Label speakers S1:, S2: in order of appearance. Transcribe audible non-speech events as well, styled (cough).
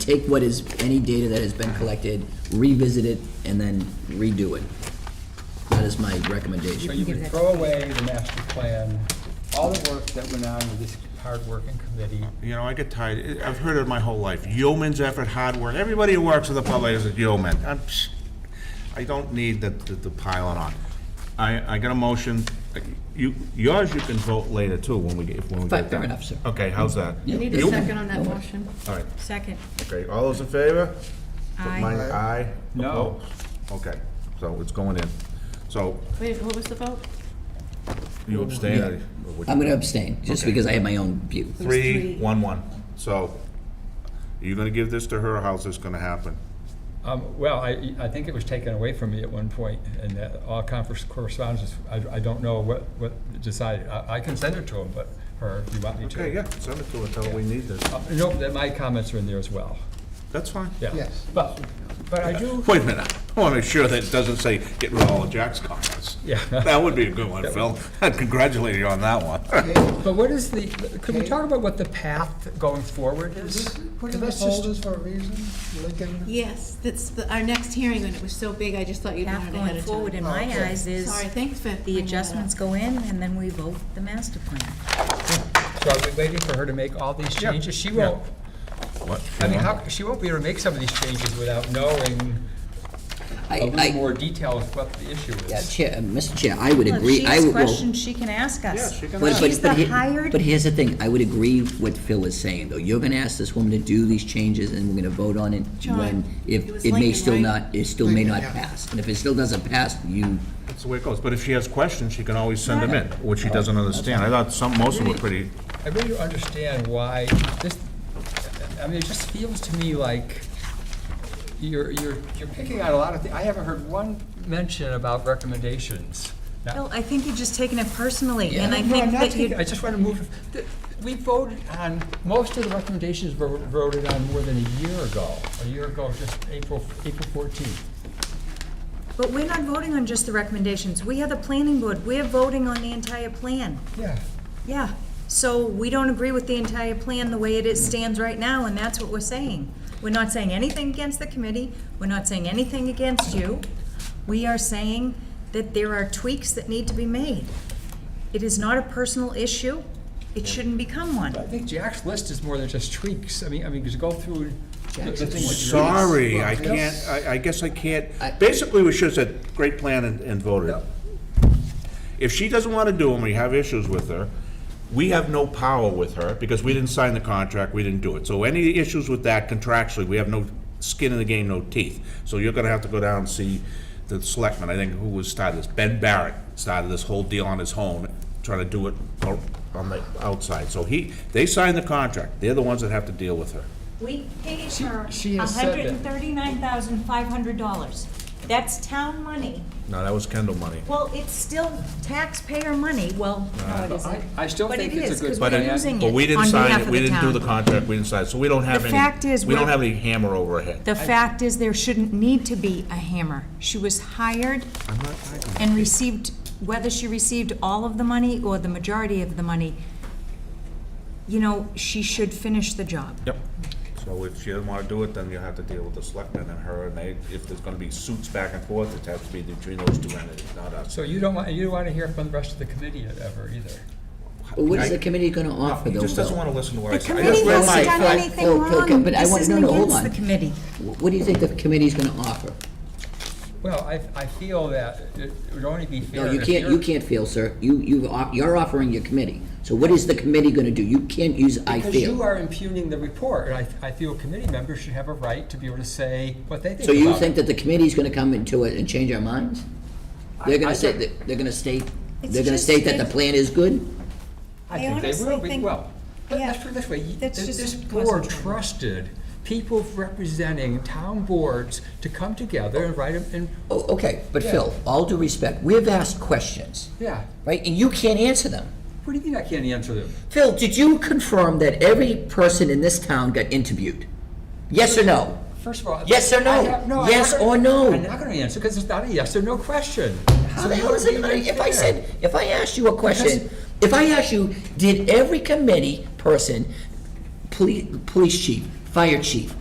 S1: take what is, any data that has been collected, revisit it, and then redo it. That is my
S2: So
S1: recommendation.
S2: you would throw away the master plan, all the work that went on with this hard-working committee.
S3: You know, I get tired, I- I've heard it my whole life, yeoman's effort, hard work, everybody who works in the public is a yeoman. I'm psh, I don't need the, the the piling on. I, I got a motion, you, yours you can vote later too, when we, get- if, when we get
S1: Fine,
S3: done.
S1: fair enough, sir.
S3: Okay, how's that?
S4: You need a
S3: You?
S4: second on that motion?
S3: All right,
S4: Second.
S3: okay, all those in favor? Mine,
S4: Aye.
S3: aye?
S2: No.
S3: Opposed? Okay, so it's going in. So
S4: Wait, what was the vote?
S3: you abstain? or- or what you-
S1: I'm gonna abstain, just
S3: Okay.
S1: because I have my own view.
S3: Three, one, one. So, are you gonna give this to her, or how's this gonna happen?
S2: Um, Well, I, I think it was taken away from me at one point, and that all conference correspondence, I, I don't know what, what decided. I I can send it to him, but, her, if you want me to.
S3: Okay, yeah, send it to her, tell her we need this.
S2: Uh, No, that my comments are in there as well,
S3: That's fine.
S2: yeah.
S5: Yes.
S2: But, but I do,
S3: Wait a minute, I wanna make sure that it doesn't say, get rid of all of Jack's comments.
S2: Yeah.
S3: (laughs) That would be a good one, Phil. I'd congratulate you on that one. (laughs)
S2: but what is the, could we talk about what the path going forward is?
S5: Put in the
S2: Let's just-
S5: folders for a reason, Lincoln.
S6: Yes, that's the- our next hearing, and it was so big, I just thought you'd
S7: Path
S6: wanted ahead
S7: going
S6: of
S7: forward in
S6: time.
S7: my eyes is
S6: Sorry, thanks for
S7: the
S6: bringing that
S7: adjustments
S6: up.
S7: go in and then we vote the master plan.
S2: So are we waiting for her to make all these changes? She won't,
S3: What?
S2: I mean, how, she won't be able to make some of these changes without knowing
S1: I,
S2: a little
S1: I,
S2: more detail of what the issue
S1: yeah,
S2: is.
S1: Chair, uh, Mr. Chair, I would
S7: Well, If
S1: agree,
S7: she
S1: I
S7: has
S1: would, well,
S7: questions, she can ask us.
S3: Yeah, she can
S1: But,
S3: ask.
S1: but,
S7: She's
S1: but,
S7: the
S1: he-
S7: hired-
S1: but here's the thing, I would agree with what Phil is saying, though. You're gonna ask this woman to do these changes, and we're gonna vote on it
S6: John,
S1: when, if
S6: it was
S1: it may
S6: Lincoln,
S1: still
S6: right?
S1: not, it still may
S5: Lincoln,
S1: not
S5: yeah.
S1: pass. And if it still doesn't pass, you,
S3: That's the way it goes, but if she has questions, she can always send them in, which she doesn't understand. I thought some, most of them were pretty,
S2: I really don't understand why this, I mean, it just feels to me like you're, you're, you're picking out a lot of things. I haven't heard one mention about recommendations. Now-
S7: Well, I think you're just taking it personally and I
S2: No, I'm
S7: think
S2: not
S7: that
S2: taking-
S7: you,
S2: I just want to move, th- we voted on, most of the recommendations were voted on more than a year ago. A year ago, just April, April fourteenth.
S7: but we're not voting on just the recommendations. We are the planning board. We're voting on the entire plan.
S2: Yeah.
S7: Yeah, so we don't agree with the entire plan the way it is, stands right now, and that's what we're saying. We're not saying anything against the committee, we're not saying anything against you. We are saying that there are tweaks that need to be made. It is not a personal issue, it shouldn't become one.
S2: I think Jack's list is more than just tweaks. I mean, I mean, just go through the the things. that you're-
S3: sorry, I can't, I, I guess I can't.
S1: I-
S3: Basically, we should have said, great plan and, and voted. If she doesn't want to do them, we have issues with her, we have no power with her, because we didn't sign the contract, we didn't do it. So any issues with that contractually, we have no skin in the game, no teeth. So you're gonna have to go down and see the selectman, I think, who was started this, Ben Barrett started this whole deal on his own, trying to do it o- on the outside. So he, they signed the contract, they're the ones that have to deal with her.
S7: We paid
S2: She-
S7: her
S2: she
S7: a
S2: has said that-
S7: hundred and thirty-nine thousand five hundred dollars. That's town money,
S3: No, that was Kendall money.
S7: well, it's still taxpayer money, well, no,
S2: Uh,
S7: it
S2: I,
S7: isn't.
S2: I still
S7: But
S2: think
S7: it
S2: it's a
S7: is,
S2: good
S7: 'cause
S2: plan.
S7: we're using
S3: But we
S7: it
S3: didn't
S7: on
S3: sign
S7: behalf
S3: it,
S7: of
S3: we
S7: the
S3: didn't do
S7: town.
S3: the contract, we didn't sign, it. so we don't have
S7: The
S3: any.
S7: fact is,
S3: We don't
S7: we're-
S3: have any hammer over our head.
S7: The fact is, there shouldn't need to be a hammer. She was hired and received, whether she received all of the money or the majority of the money, you know, she should finish the job.
S3: Yep. So if she doesn't wanna do it, then you have to deal with the selectmen and her, and they, if there's gonna be suits back and forth, it has to be between those two entities, not us.
S2: So you don't want, you don't want to hear from the rest of the committee ever either.
S1: Well, what is
S3: I-
S1: the committee gonna offer,
S3: He
S1: though,
S3: just doesn't
S1: Phil?
S3: wanna listen to what I
S7: The
S3: say. I
S7: committee
S3: just read my-
S7: hasn't done
S1: Phil,
S7: anything
S1: Phil, Phil,
S7: wrong.
S1: but I
S7: This
S1: want- no,
S7: isn't
S1: no, hold
S7: against the
S1: on.
S7: committee.
S1: Wh- What do you think the committee's gonna offer?
S2: Well, I, I feel that it would only be fair.
S1: No, you
S2: if
S1: can't,
S2: you're-
S1: you can't feel, sir. You, you, off- you're offering your committee. So what is the committee gonna do? You can't use I
S2: Because you
S1: feel.
S2: are impugning the report, and I, I feel committee members should have a right to be able to say what they think
S1: So you
S2: about it.
S1: think that the committee's gonna come into it and change our minds? They're
S2: I
S1: gonna say,
S2: don't-
S1: that- they're gonna state,
S4: It's
S1: they're gonna
S4: just-
S1: state that the
S4: it's-
S1: plan is good?
S2: I
S4: I
S2: think they will
S4: honestly
S2: be,
S4: think-
S2: well, let- let's
S4: yeah,
S2: put it this way, y-
S4: that's
S2: this this
S4: just
S2: board
S4: concentrating.
S2: trusted people representing town boards to come together and write, a- and,
S1: Oh, okay, but Phil, all due respect, we've asked questions,
S2: yeah,
S1: right, and you can't answer them.
S2: what do you mean I can't answer them?
S1: Phil, did you confirm that every person in this town got interviewed? Yes or no?
S2: First of all.
S1: Yes or no?
S2: I have- I'm
S1: Yes
S2: not gonna-
S1: or no?
S2: I'm not gonna answer, because it's not a yes or no question.
S1: How
S2: So
S1: the
S2: you
S1: hell is
S2: would
S1: it,
S2: be
S1: gonna- if I
S2: unfair.
S1: said, if I asked you a question, if I asked you, did every committee person, police, police chief, fire chief,